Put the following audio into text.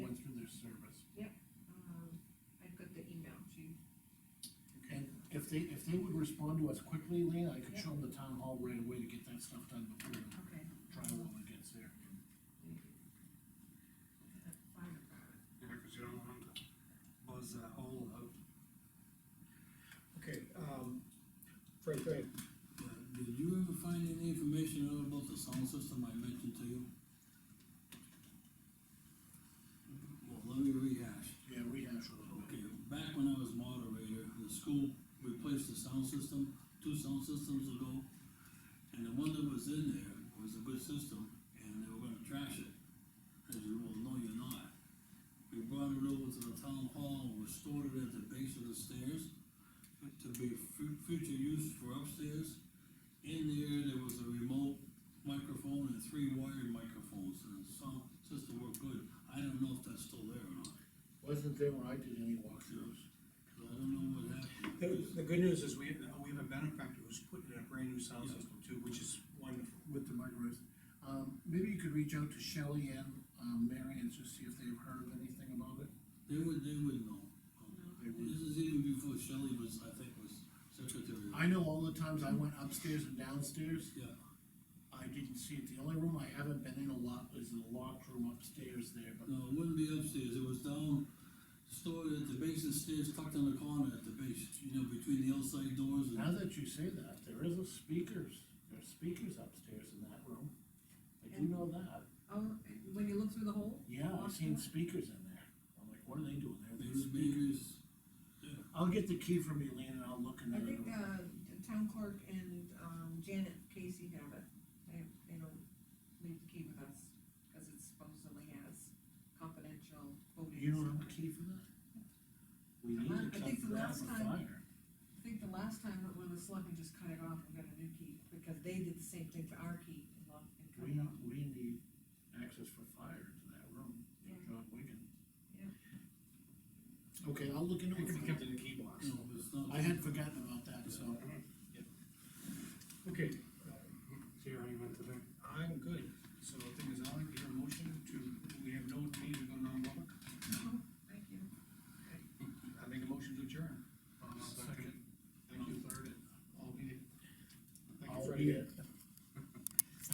Um, they, if they would respond to us quickly, Lean, I could show them the town hall right away to get that stuff done before the Okay. drywall gets there. the fire department. Yeah, cause you don't want to buzz that hole out. Okay, um, Frank, go ahead. Did you ever find any information out about the sound system I mentioned to you? Well, let me rehash. Yeah, rehash a little bit. Okay, back when I was moderator, the school replaced the sound system, two sound systems ago. And the one that was in there was a good system, and they were gonna trash it. I said, well, no, you're not. We brought it over to the town hall, restored it at the base of the stairs, to be fu- future use for upstairs. In there, there was a remote microphone and three wired microphones, and the sound system worked good. I don't know if that's still there or not. Wasn't there when I did any walkthroughs? I don't know what happened. The, the good news is We have, we have a benefactor who's putting in a brand new sound Yeah. system too, which is wonderful. With the microwaves. Um, maybe you could reach out to Shelley and, um, Mary and just see if they've heard of anything about it. They would, they would know. They would. This is even before Shelley was, I think, was secretary. I know all the times I went upstairs and downstairs, Yeah, I didn't see it. The only room I haven't been in a lot is the locked room upstairs there, but no, it wouldn't be upstairs, it was down, stored at the base of the stairs, tucked in the corner at the base, you know, between the outside doors and. now that you say that, there is a speakers, there's speakers upstairs in that room. I do know that. Oh, when you look through the hole? Yeah, I've seen speakers in there. I'm like, what are they doing there? There There's was speakers. babies, I'll get the key from you, Lean, and I'll look in I there. think, uh, the town clerk and, um, Janet Casey have it, they, they don't leave the key with us, cause it supposedly has confidential voting. You don't have a key for that? We need uh, I to come think the grab a last time- fire. I think the last time that we were selecting, just cut it off and got a new key, because they did the same thing to our key and locked and cut We, it off. we need access for fire to that room, Yeah. John Wigan. Yeah. Okay, I'll look into It could be it. kept in the key box. you know, it's not. I had forgotten about that, so